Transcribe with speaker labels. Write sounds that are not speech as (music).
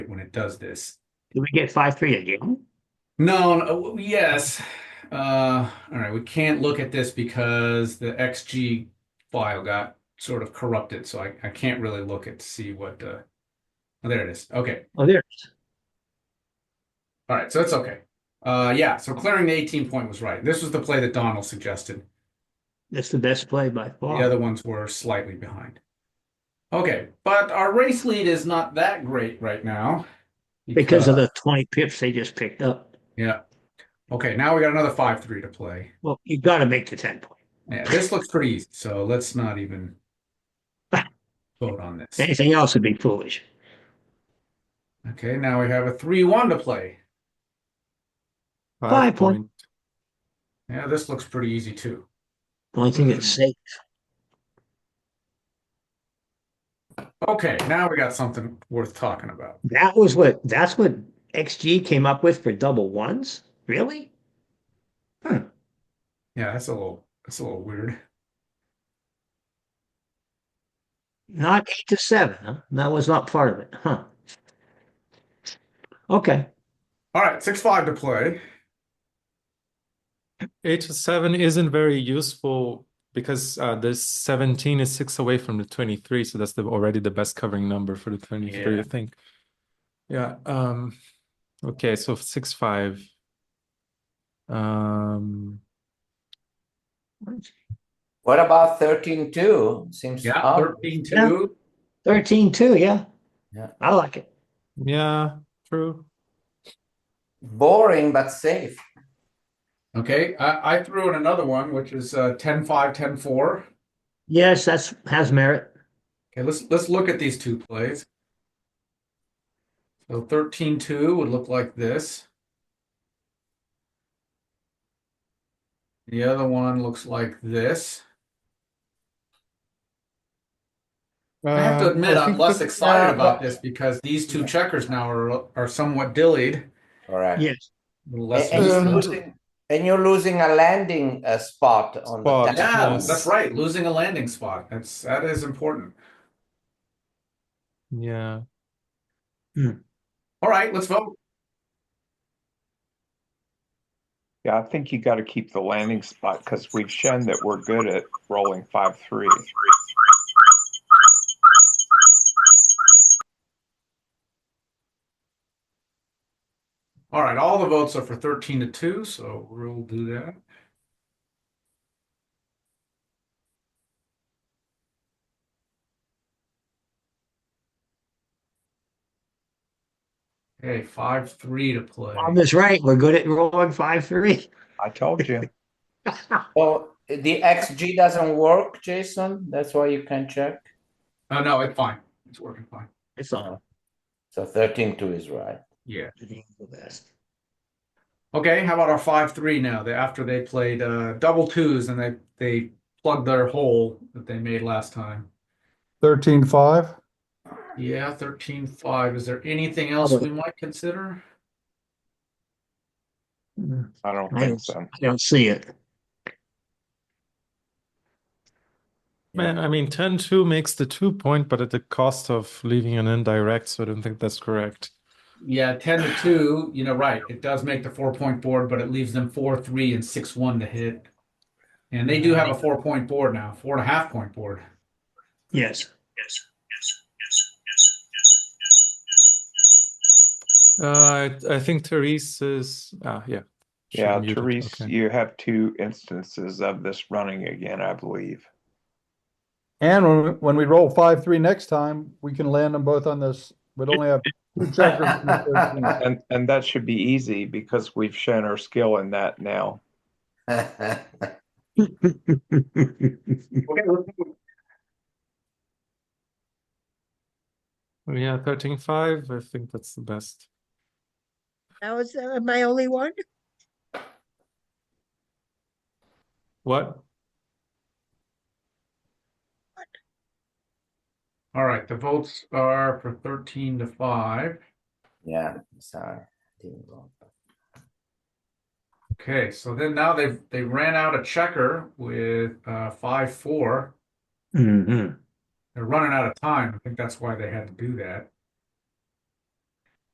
Speaker 1: when it does this.
Speaker 2: Do we get five three again?
Speaker 1: No, no, yes. Uh, all right, we can't look at this because the XG file got sort of corrupted, so I, I can't really look at to see what uh oh, there it is. Okay.
Speaker 2: Oh, there.
Speaker 1: All right, so that's okay. Uh, yeah, so clearing the 18 point was right. This was the play that Donald suggested.
Speaker 2: That's the best play by far.
Speaker 1: The other ones were slightly behind. Okay, but our race lead is not that great right now
Speaker 2: because of the 20 pips they just picked up.
Speaker 1: yeah. Okay, now we got another 5-3 to play.
Speaker 2: Well, you got to make the 10 point.
Speaker 1: Yeah, this looks pretty easy, so let's not
Speaker 2: (laughs)
Speaker 1: even vote on this.
Speaker 2: Anything else would be foolish.
Speaker 1: Okay, now we have a 3-1 to play.
Speaker 2: Five point.
Speaker 1: Yeah, this looks pretty easy too.
Speaker 2: The only thing that's safe.
Speaker 1: Okay, now we got something worth talking about.
Speaker 2: That was what. That's what XG came up with for double ones. Really?
Speaker 1: Yeah, that's a little that's a little weird.
Speaker 2: Not eight to seven. Huh? That was not part of it. Huh. Okay.
Speaker 1: All right, 6-5 to play.
Speaker 3: Eight to seven isn't very useful because uh, the seventeen is six away from the twenty-three, so that's the, already the best covering number for the twenty-three,
Speaker 1: Yeah.
Speaker 3: I think. Yeah. Um, okay, so six five. Um,
Speaker 4: What about thirteen two? Seems
Speaker 1: Yeah,
Speaker 4: odd.
Speaker 1: 13-2.
Speaker 2: 13 2. Yeah.
Speaker 4: Yeah.
Speaker 2: I like it.
Speaker 3: yeah, true.
Speaker 4: boring but safe.
Speaker 1: Okay, I, I threw in another one, which is uh, 10 5, 10 4.
Speaker 2: Yes, that's has merit.
Speaker 1: Okay, let's let's look at these two plays. So 13 2 would look like this. The other one looks like this. I have to
Speaker 3: Uh,
Speaker 1: admit,
Speaker 3: I
Speaker 1: I'm
Speaker 3: think
Speaker 1: less
Speaker 3: that-
Speaker 1: excited
Speaker 4: uh,
Speaker 1: about
Speaker 4: but-
Speaker 1: this because these two checkers now are are somewhat dillied.
Speaker 4: All right.
Speaker 2: Yes.
Speaker 1: a little
Speaker 4: And,
Speaker 1: Less
Speaker 4: and you're
Speaker 3: Um,
Speaker 4: losing, and you're losing a landing uh, spot on
Speaker 3: Spot,
Speaker 4: the
Speaker 1: yeah,
Speaker 4: telephone.
Speaker 3: Yes.
Speaker 1: that's right. Losing a landing spot. That's that is important.
Speaker 3: Yeah.
Speaker 1: All right, let's vote.
Speaker 5: Yeah, I think you got to keep the landing spot because we've shown that we're good at rolling five three.
Speaker 1: All right, all the votes are for 13 to 2, so we'll do that. Okay, 5 3 to play.
Speaker 2: Bob is right. We're good at rolling 5 (laughs) 3.
Speaker 5: I told you.
Speaker 4: (laughs) So the XG doesn't work, Jason. That's why you can check.
Speaker 1: Oh, no, it's fine. It's working fine.
Speaker 2: it's all.
Speaker 4: So thirteen two is right.
Speaker 1: Yeah.
Speaker 2: the best.
Speaker 1: Okay, how about our 5 3 now? They, after they played uh, double twos and they, they plugged their hole that they made last time.
Speaker 6: Thirteen five.
Speaker 1: Yeah, 13 5. Is there anything else we might consider?
Speaker 2: Mm,
Speaker 5: I don't
Speaker 2: I
Speaker 5: think
Speaker 2: don't-
Speaker 5: so.
Speaker 2: I don't see it.
Speaker 3: Man, I mean, 10 2 makes the two point, but at the cost of leaving an indirect, so I don't think that's correct.
Speaker 1: Yeah, ten to two, you know, right. It does make the four point board, but it leaves them four, three, and six, one to hit. And they do have a four point board now, four and a half point board.
Speaker 2: Yes.
Speaker 3: Uh, I, I think Therese is. Ah, yeah. She
Speaker 5: Yeah,
Speaker 3: muted,
Speaker 5: Therese,
Speaker 3: okay.
Speaker 5: you have two instances of this running again, I believe.
Speaker 6: And when, we- when we roll five three next time, we can land them both on this. We'd only have two checkers.
Speaker 4: (laughs)
Speaker 6: in the 13.
Speaker 5: And and that should be easy because we've shown our skill in that now.
Speaker 3: Yeah, 13 5. I think that's the best.
Speaker 7: That was uh, my only one.
Speaker 3: What?
Speaker 1: All right, the votes are for thirteen to five.
Speaker 4: (laughs) yeah. Sorry. Didn't work.
Speaker 1: Okay, so then now they've they ran out a checker with uh five four.
Speaker 2: Mhm.
Speaker 1: They're running out of time. I think that's why they had to do that.